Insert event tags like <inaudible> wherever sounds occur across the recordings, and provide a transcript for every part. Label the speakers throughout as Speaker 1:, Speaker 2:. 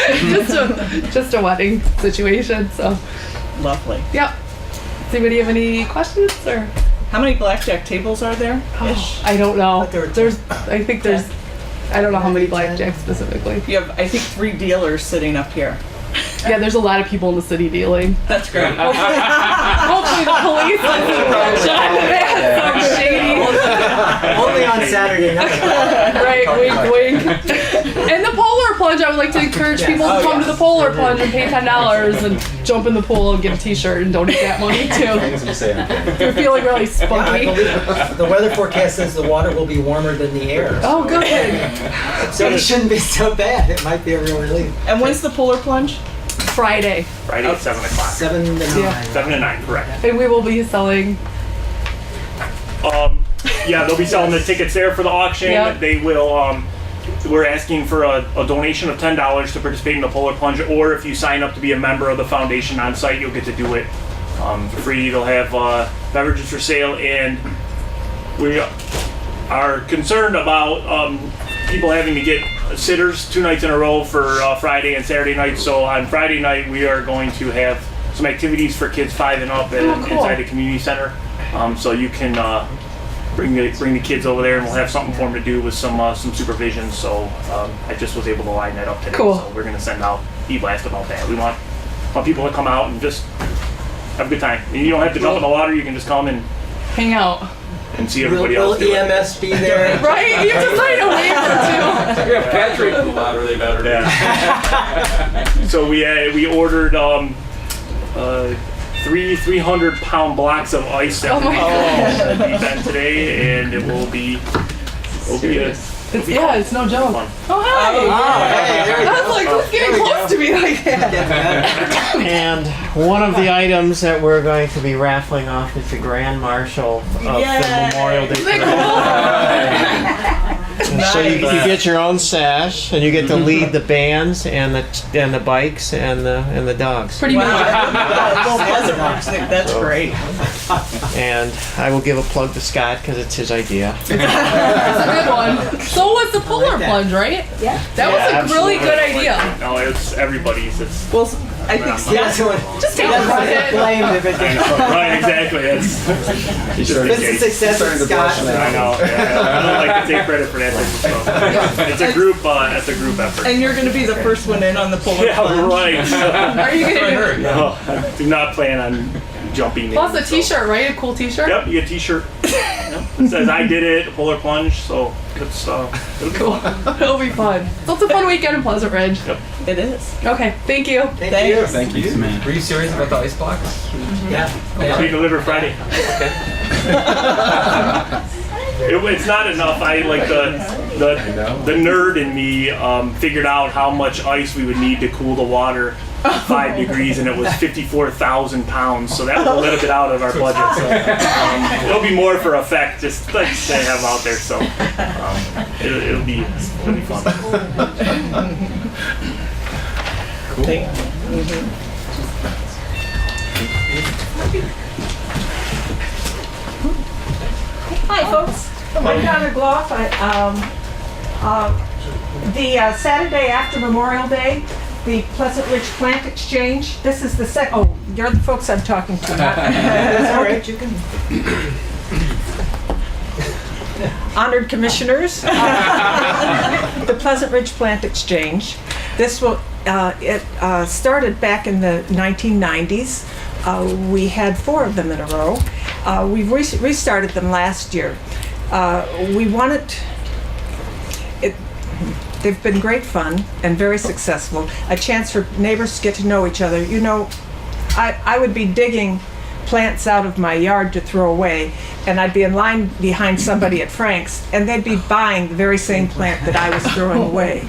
Speaker 1: <laughs> just a just a wedding situation. So,
Speaker 2: Lovely.
Speaker 1: yep. Does anybody have any questions or?
Speaker 2: How many blackjack tables are there?
Speaker 1: Oh, I don't know.
Speaker 3: But there were ten.
Speaker 1: There's, I think there's, I don't know how many blackjack specifically.
Speaker 2: You have, I think, three dealers sitting up here.
Speaker 1: Yeah, there's a lot of people in the city
Speaker 3: <laughs>
Speaker 1: dealing.
Speaker 2: That's great.
Speaker 1: Hopefully the police doesn't shot <laughs> that. Some shady,
Speaker 3: Only
Speaker 4: <laughs>
Speaker 3: on Saturday night.
Speaker 1: right? Wink, wink. <laughs> And the polar plunge, I would like to encourage people to
Speaker 3: Oh,
Speaker 1: come to
Speaker 3: yes.
Speaker 1: the polar plunge and pay ten dollars and jump in the pool and get a T-shirt and donate that
Speaker 3: <laughs>
Speaker 1: money too.
Speaker 5: Things we say on camera.
Speaker 1: If you're feeling really
Speaker 3: I
Speaker 1: spunky.
Speaker 3: believe the weather forecast says the water will be warmer than the air.
Speaker 1: Oh, good.
Speaker 3: So it shouldn't be so bad. It might be a real relief.
Speaker 2: And when's the polar plunge?
Speaker 1: Friday,
Speaker 4: Friday at 7 o'clock.
Speaker 3: Seven to
Speaker 1: Yeah.
Speaker 3: nine.
Speaker 4: 7 to 9, correct.
Speaker 1: and we will be selling.
Speaker 4: Um, yeah, they'll be selling the tickets there for the auction.
Speaker 1: Yep.
Speaker 4: They will, um, we're asking for a, a donation of $10 to participate in the Polar Plunge, or if you sign up to be a member of the foundation on site, you'll get to do it um, for free. They'll have uh, beverages for sale, and we are concerned about um, people having to get sitters two nights in a row for uh, Friday and Saturday night. So on Friday night, we are going to have some activities for kids five and up at,
Speaker 1: Oh, cool.
Speaker 4: inside the community center. Um, so you can uh, bring the bring the kids over there, and we'll have something for them to do with some uh, some supervision. So um, I just was able to line that up today.
Speaker 1: Cool.
Speaker 4: So we're gonna send out e-blast about that. We want want people to come out and just have a good time. You don't have to jump in the water. You can just come and,
Speaker 1: Hang out,
Speaker 4: and see
Speaker 3: Will,
Speaker 4: everybody
Speaker 3: will
Speaker 4: else. do it.
Speaker 3: EMS
Speaker 6: <laughs>
Speaker 3: be there?
Speaker 1: right? You have to sign a waiver too.
Speaker 6: Yeah, Patrick, a lot really better.
Speaker 4: Yeah. <laughs> so we uh, we ordered um, uh, three 300 pound blocks of ice that
Speaker 1: Oh
Speaker 4: we
Speaker 1: my
Speaker 4: oh. that we bent today, and it will be will be a
Speaker 1: It's, yeah, it's no joke.
Speaker 4: fun.
Speaker 1: Oh hi!
Speaker 3: Oh, hey, there
Speaker 1: I
Speaker 3: we go.
Speaker 1: was like, who's getting close to me like that?
Speaker 7: And one of the items that we're going to be raffling off is the Grand Marshal of the
Speaker 2: Yay.
Speaker 7: Memorial Day
Speaker 1: Isn't
Speaker 7: Parade.
Speaker 1: that
Speaker 7: So you, you get your own sash, and you get to lead the bands and the and the bikes and the and the dogs.
Speaker 1: cool? Pretty much.
Speaker 2: <laughs> Well, Pleasant Rock's, that's great.
Speaker 7: And I will give a plug to Scott because it's his idea.
Speaker 1: That's a good one. So was the polar
Speaker 3: that.
Speaker 1: plunge, right?
Speaker 8: Yeah.
Speaker 1: That was a
Speaker 4: Yeah,
Speaker 1: really good
Speaker 4: absolutely.
Speaker 3: <laughs>
Speaker 1: idea.
Speaker 4: No, it's everybody's. It's
Speaker 2: Well, I think
Speaker 3: That's
Speaker 2: Scott's,
Speaker 3: what.
Speaker 1: Just take a
Speaker 3: That's
Speaker 1: look
Speaker 3: what
Speaker 1: at
Speaker 3: I
Speaker 1: it.
Speaker 3: blamed if it
Speaker 4: I
Speaker 3: didn't.
Speaker 4: know, right? Exactly. It's
Speaker 5: You started-
Speaker 3: This is success
Speaker 5: starting
Speaker 3: of
Speaker 5: to blush
Speaker 3: Scott.
Speaker 5: now.
Speaker 4: I know. Yeah, I don't like to take credit for that type of stuff. It's a group. Uh, it's a group effort.
Speaker 2: and you're going to be the first one in on the polar
Speaker 4: <laughs> yeah,
Speaker 2: plunge.
Speaker 4: right.
Speaker 1: Are you gonna do
Speaker 4: no, I <laughs> do not plan on jumping.
Speaker 1: plus
Speaker 4: in,
Speaker 1: a
Speaker 4: so.
Speaker 1: t-shirt, right? A cool t-shirt.
Speaker 4: Yep, you get a
Speaker 1: <laughs>
Speaker 4: t-shirt. Yep, It says I did it, polar plunge, so it's uh it'll be
Speaker 1: <laughs>
Speaker 4: cool.
Speaker 1: It'll be fun. So it's a fun weekend in Pleasant Ridge.
Speaker 2: It is.
Speaker 1: Okay, thank you.
Speaker 3: Thank you.
Speaker 5: Thank you, man.
Speaker 6: Were you serious about the ice blocks?
Speaker 3: Yeah.
Speaker 4: We deliver Friday. <laughs> It, it's not enough. I like the the the nerd in me um, figured out how much ice we would need to cool the water to five degrees, and it was fifty four thousand pounds. So that was a little bit out of our budget. So um, it'll be more for effect, just like they have out there. So um, it, it'll be it'll be fun.
Speaker 9: Hi, folks. I'm Donna Gloff. I, um, uh, The uh, Saturday after Memorial Day, the Pleasant Ridge Plant Exchange, this is the sec, oh, you're the folks I'm talking to. not-
Speaker 3: All right.
Speaker 9: Honored Commissioners, the Pleasant Ridge Plant Exchange. This will, uh, it uh, started back in the 1990s. Uh, We had four of them in a row. Uh, We re- restarted them last year. Uh, We wanted, it, they've been great fun and very successful. A chance for neighbors to get to know each other. You know, I, I would be digging plants out of my yard to throw away, and I'd be in line behind somebody at Frank's, and they'd be buying the very same plant that I was throwing away.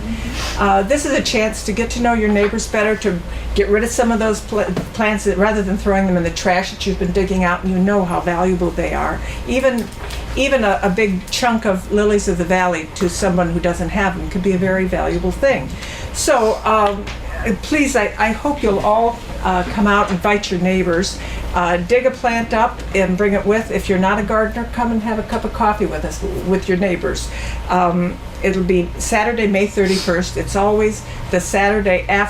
Speaker 9: Uh, this is a chance to get to know your neighbors better, to get rid of some of those pl- plants that, rather than throwing them in the trash that you've been digging out, and you know how valuable they are. Even even a, a big chunk of lilies of the valley to someone who doesn't have them could be a very valuable thing. So um, uh, please, I, I hope you'll all uh, come out, invite your neighbors, uh, dig a plant up and bring it with. If you're not a gardener, come and have a cup of coffee with us, with your neighbors. Um, it'll be Saturday, May 31st. It's always the Saturday after.